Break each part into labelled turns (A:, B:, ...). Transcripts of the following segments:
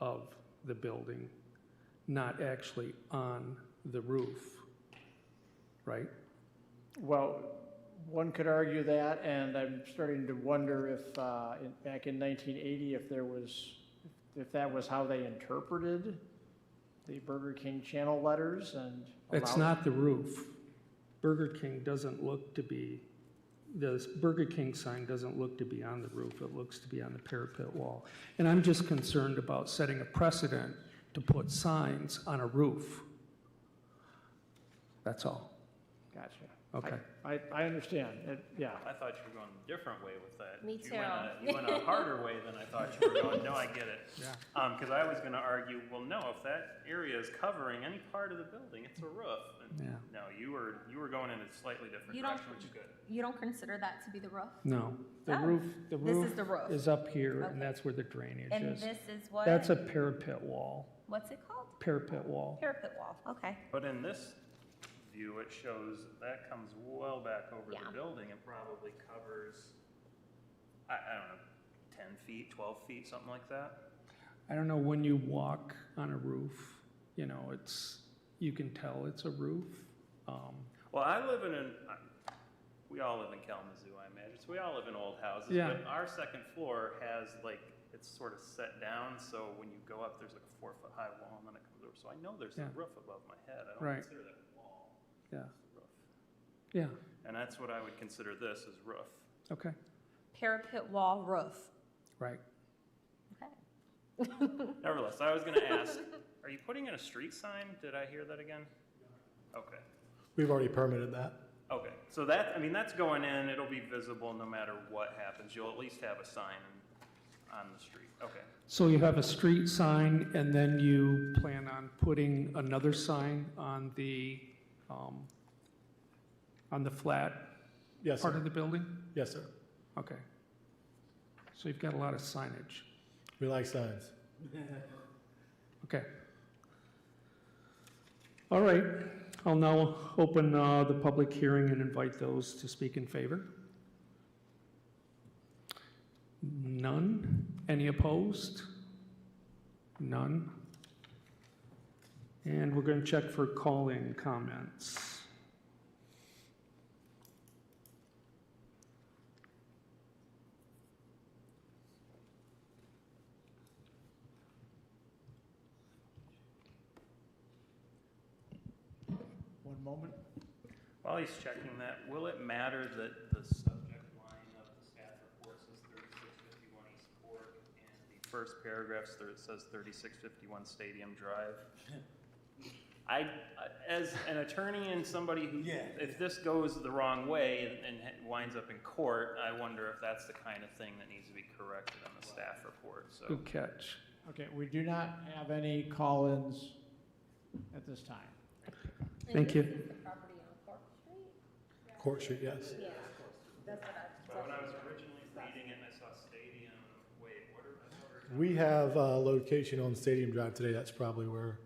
A: of the building, not actually on the roof, right?
B: Well, one could argue that, and I'm starting to wonder if, uh, in- back in 1980, if there was, if that was how they interpreted the Burger King channel letters and.
A: It's
B: allowed-
A: not the roof. Burger King doesn't look to be, the Burger King sign doesn't look to be on the roof, it looks to be on the parapet wall. And I'm just concerned about setting a precedent to put signs on a roof. That's all.
B: Gotcha.
A: Okay.
B: I, I understand, it, yeah.
C: I thought you were going a different way with that.
D: Me
C: You went a, you went a harder way than I thought you were going. No, I get it.
A: Yeah.
C: Um, because I was gonna argue, well, no, if that area is covering any part of the building, it's a roof. And
A: Yeah.
C: No, you were, you were going in a slightly different
D: You don't-
C: direction, which is good.
D: You don't consider that to be the roof?
A: No, the
D: Oh,
A: roof, the
D: this
A: roof
D: is the roof.
A: is up here,
D: Okay.
A: and that's where the drainage
D: And
A: is.
D: this is what?
A: That's a parapet wall,
D: What's it called?
A: parapet wall.
D: Parapet wall, okay.
C: But in this view, it shows that comes well back over
D: Yeah.
C: the building and probably covers, I, I don't know, ten feet, twelve feet, something like that.
A: I don't know, when you walk on a roof, you know, it's, you can tell it's a roof. Um,
C: Well, I live in an, I- we all live in Kalamazoo, I imagine, so we all live in old houses.
A: Yeah.
C: But our second floor has like, it's sort of set down, so when you go up, there's like a four foot high wall and then it comes over. So I know there's
A: Yeah.
C: a roof above my head. I
A: Right.
C: don't consider that a wall,
A: Yeah,
C: it's a roof.
A: yeah,
C: And that's what I would consider this, is roof.
A: okay,
D: Parapet wall roof.
A: right.
D: Okay.
C: Nevertheless, I was gonna ask, are you putting in a street sign? Did I hear that again? Okay.
E: We've already permitted that.
C: Okay, so that, I mean, that's going in, it'll be visible no matter what happens, you'll at least have a sign on the street, okay.
A: So you have a street sign, and then you plan on putting another sign on the, um, on the flat
E: Yes,
A: part of
E: sir.
A: the building?
E: Yes, sir.
A: Okay. So you've got a lot of signage.
E: We like signs.
A: Okay. All right, I'll now open uh, the public hearing and invite those to speak in favor. None? Any opposed? None? And we're going to check for call-in comments.
B: One moment.
C: While he's checking that, will it matter that the subject line of the staff report says thirty-six fifty-one East Fork, and the first paragraph there- says thirty-six fifty-one Stadium Drive? I, as an attorney and somebody who, if this goes the wrong way and and winds up in court, I wonder if that's the kind of thing that needs to be corrected on the staff report, so.
A: Good catch.
B: Okay, we do not have any call-ins at this time.
A: Thank you.
D: The property on Cork Street?
E: Court Street, yes.
D: Yeah, that's what I.
C: When I was originally reading it, and I saw stadium, wait, what are, what are-
E: We have a location on Stadium Drive today. That's probably where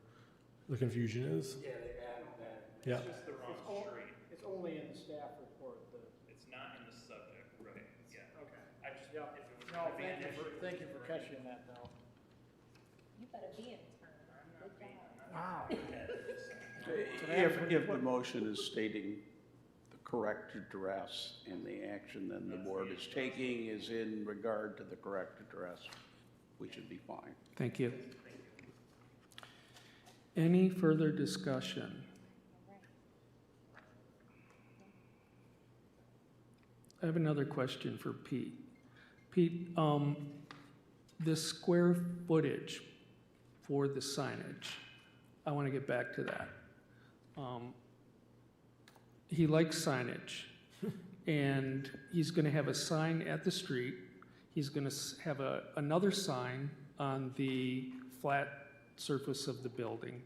E: the confusion is.
C: Yeah, they added that.
E: Yeah.
C: It's just the wrong street.
B: It's only in the staff report, the.
C: It's not in the subject, right, yeah.
B: Okay.
C: I just, if it was
B: No,
C: gonna be
B: thank
C: an
B: you
C: issue.
B: for, thank you for catching that, though.
D: You better be in town. Good job.
B: Wow.
F: If, if the motion is stating the correct address and the action then the board is taking is in regard to the correct address, we should be fine.
A: Thank you. Any further discussion? I have another question for Pete. Pete, um, the square footage for the signage, I want to get back to that. Um, He likes signage, and he's going to have a sign at the street. He's going to have a, another sign on the flat surface of the building.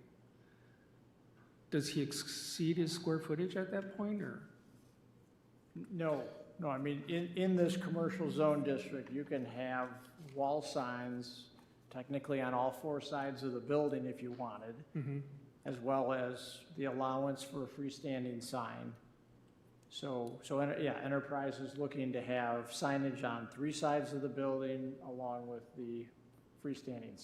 A: Does he exceed his square footage at that point, or?
B: No, no, I mean, in, in this commercial zone district, you can have wall signs technically on all four sides of the building if you wanted, as well as the allowance for a freestanding sign. So, so, en- yeah, Enterprise is looking to have signage on three sides of the building along with the freestanding